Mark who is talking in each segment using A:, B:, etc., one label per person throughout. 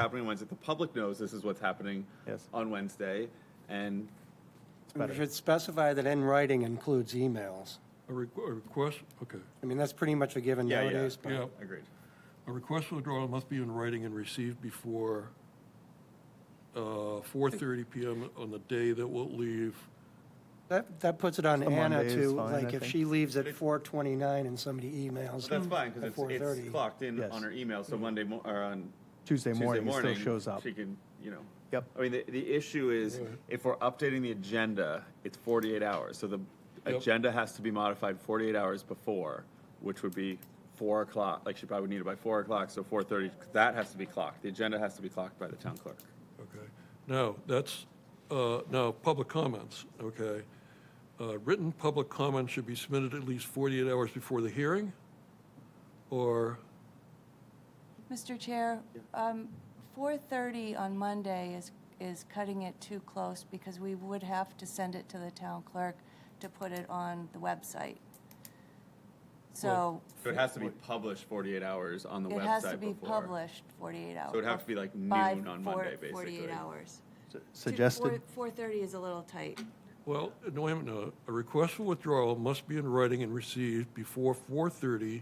A: happening Wednesday. The public knows this is what's happening
B: Yes.
A: on Wednesday, and
B: better.
C: We should specify that in writing includes emails.
D: A requ- a request, okay.
C: I mean, that's pretty much a given
A: Yeah, yeah.
C: nowadays, but
D: Yeah,
A: agreed.
D: a request for withdrawal must be in writing and received before uh, 4:30 PM on the day that will leave.
C: that, that puts it on
B: The Monday
C: Anna
B: is
C: to,
B: fine, I
C: like, if
B: think.
C: she leaves at 4:29 and somebody emails.
A: That's fine
C: at
A: because it's, it's
C: 4:30.
A: clocked in
B: Yes.
A: on her email, so Monday mo- or on
B: Tuesday
A: Tuesday
B: morning, it still
A: morning
B: shows up.
A: She can, you know.
B: Yep.
A: I mean, the, the issue is if we're updating the agenda, it's 48 hours. So the
D: Yep.
A: agenda has to be modified 48 hours before, which would be four o'clock. Like she probably would need it by four o'clock, so 4:30. That has to be clocked. The agenda has to be clocked by the town clerk.
D: Okay. Now, that's, uh, now, public comments, okay? Uh, Written public comments should be submitted at least 48 hours before the hearing? Or,
E: Mr. Chair, um, 4:30 on Monday is, is cutting it too close because we would have to send it to the town clerk to put it on the website. So
A: So it has to be published 48 hours on the
E: it
A: website
E: has to be
A: before.
E: published 48 hours.
A: So it'd have to be like
E: by
A: noon on
E: four-
A: Monday, basically.
E: 48 hours.
B: Suggested,
E: 4:30 is a little tight.
D: well, no, wait a minute, no. A request for withdrawal must be in writing and received before 4:30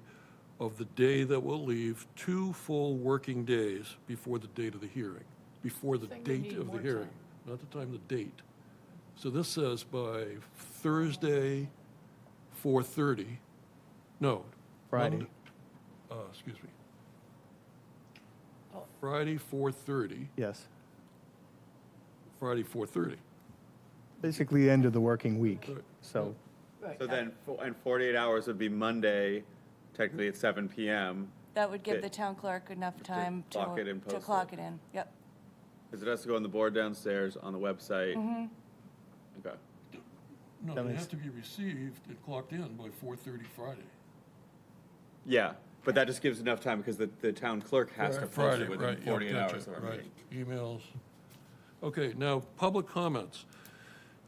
D: of the day that will leave two full working days before the date of the hearing, before the date of the hearing, not the time, the date. So this says by Thursday, 4:30, no.
B: Friday.
D: Mond- Uh, excuse me. Friday, 4:30,
B: yes.
D: Friday, 4:30.
B: Basically, the end of the working week.
D: Right.
B: So,
A: So then, fo- and 48 hours would be Monday, technically at 7 PM,
E: That would give
A: Okay.
E: the town clerk enough time to.
A: clock it and
E: To
A: post
E: clock
A: it.
E: it in, yep.
A: because it has to go on the board downstairs, on the website.
E: Mm-hmm.
A: Okay.
D: No,
B: That
D: they
B: makes-
D: have to be received and clocked in by 4:30 Friday.
A: Yeah, but that just gives enough time, because the, the town clerk has to
D: Right,
A: post
D: Friday,
A: it within
D: right, yeah,
A: 48
D: gotcha,
A: hours of our
D: right.
A: meeting.
D: Emails. Okay, now, public comments.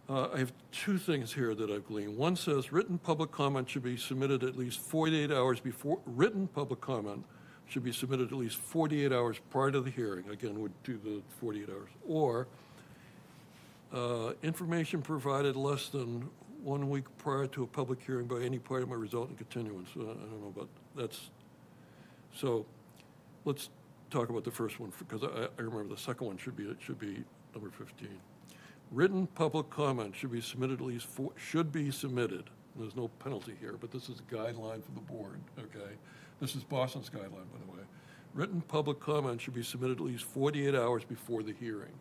D: Uh, I have two things here that I've gleaned. One says, written public comment should be submitted at least 48 hours before, written public comment should be submitted at least 48 hours prior to the hearing. Again, would do the 48 hours. Or, uh, information provided less than one week prior to a public hearing by any party may result in continuance. Uh, I don't know, but that's, so let's talk about the first one, because I, I remember the second one should be, it should be number 15. Written public comment should be submitted at least four, should be submitted. There's no penalty here, but this is a guideline for the board, okay? This is Boston's guideline, by the way. Written public comment should be submitted at least 48 hours before the hearing.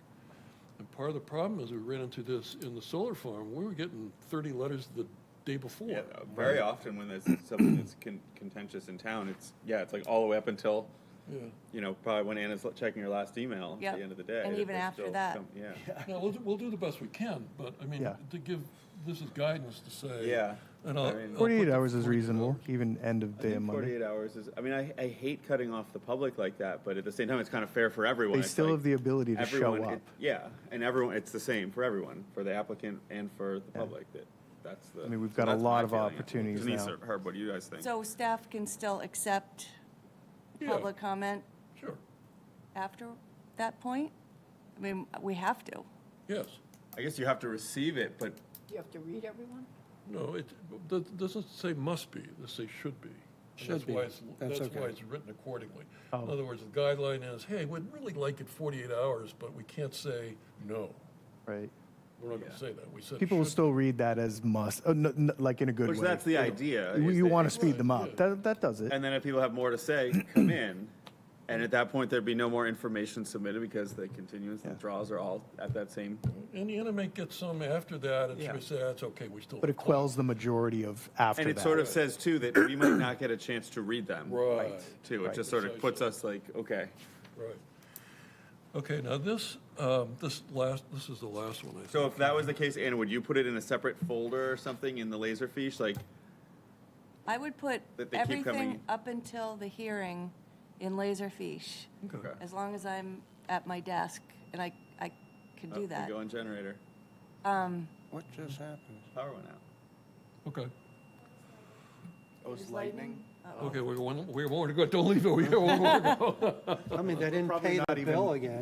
D: And part of the problem is we ran into this in the solar farm, we were getting 30 letters the day before.
A: Yeah, uh, very often when there's something that's con- contentious in town, it's, yeah, it's like all the way up until,
D: Yeah.
A: you know, probably when Anna's l- checking her last email at
E: Yep.
A: the end of the day.
E: And
A: if
E: even
A: it's
E: after
A: still
E: that.
A: some- Yeah.
D: No, we'll, do- we'll do the best we can, but I mean,
B: Yeah.
D: to give, this is guidance to say.
A: Yeah,
D: And I'll.
A: I mean-
D: I'll put
B: 48
D: the
B: hours is
D: 48
B: reasonable,
D: hours.
B: even end of
A: I
B: day
A: think
B: on Monday.
A: 48 hours is, I mean, I, I hate cutting off the public like that, but at the same time, it's kind of fair for everyone.
B: They
A: It's
B: still
A: like
B: have the ability to show
A: everyone-
B: up.
A: it- Yeah, and everyone, it's the same for everyone, for the applicant and for the public, that, that's the.
B: I mean, we've
A: so
B: got a
A: that's
B: lot
A: my
B: of
A: feeling on it.
B: opportunities
A: Denise
B: now.
A: or Herb, what do you guys think?
E: So staff can still accept
D: Yeah.
E: public comment
D: Sure,
E: after that point? I mean, we have to.
D: yes.
A: I guess you have to receive it, but
F: You have to read everyone?
D: No, it, that doesn't say must be, it says should be. And
C: Should be.
D: That's why
C: That's
D: it's, that's
C: okay.
D: why it's written accordingly.
B: Oh.
D: In other words, the guideline is, hey, we'd really like it 48 hours, but we can't say no.
B: Right.
D: We're not going to say that, we said.
B: People will
D: should.
B: still read that as must, uh, n- n- like in a good way.
A: Which that's the idea,
B: You-
A: is
B: You
A: that
B: want to
A: it's
B: speed them up. That, that does it.
A: And then if people have more to say, come in. And at that point, there'd be no more information submitted because the continuance and draws are all at that same.
D: And the inmate gets some after that, and
A: Yeah.
D: we say, that's okay, we still.
B: But it quells the majority of after
A: And
B: that.
A: it sort of says too, that we might not get a chance to read them.
D: Right.
A: Too, it just sort of puts us like, okay.
D: Right. Okay, now this, um, this last, this is the last one, I think.
A: So if that was the case, Anna, would you put it in a separate folder or something in the Laserfish? Like,
E: I would put
A: That they keep
E: everything
A: coming.
E: up until the hearing in Laserfiche,
A: okay.
E: as long as I'm at my desk, and I, I could
A: Oh, we
E: do that. Um,
A: Go on generator.
C: What just happened?
A: Power went out.
D: Okay.
F: It was lightning.
D: Okay, we're one, we're more to go, don't leave it, we got one more to go.
C: I mean, they didn't
B: Probably
C: pay
B: not
C: the
B: even-
C: bill again.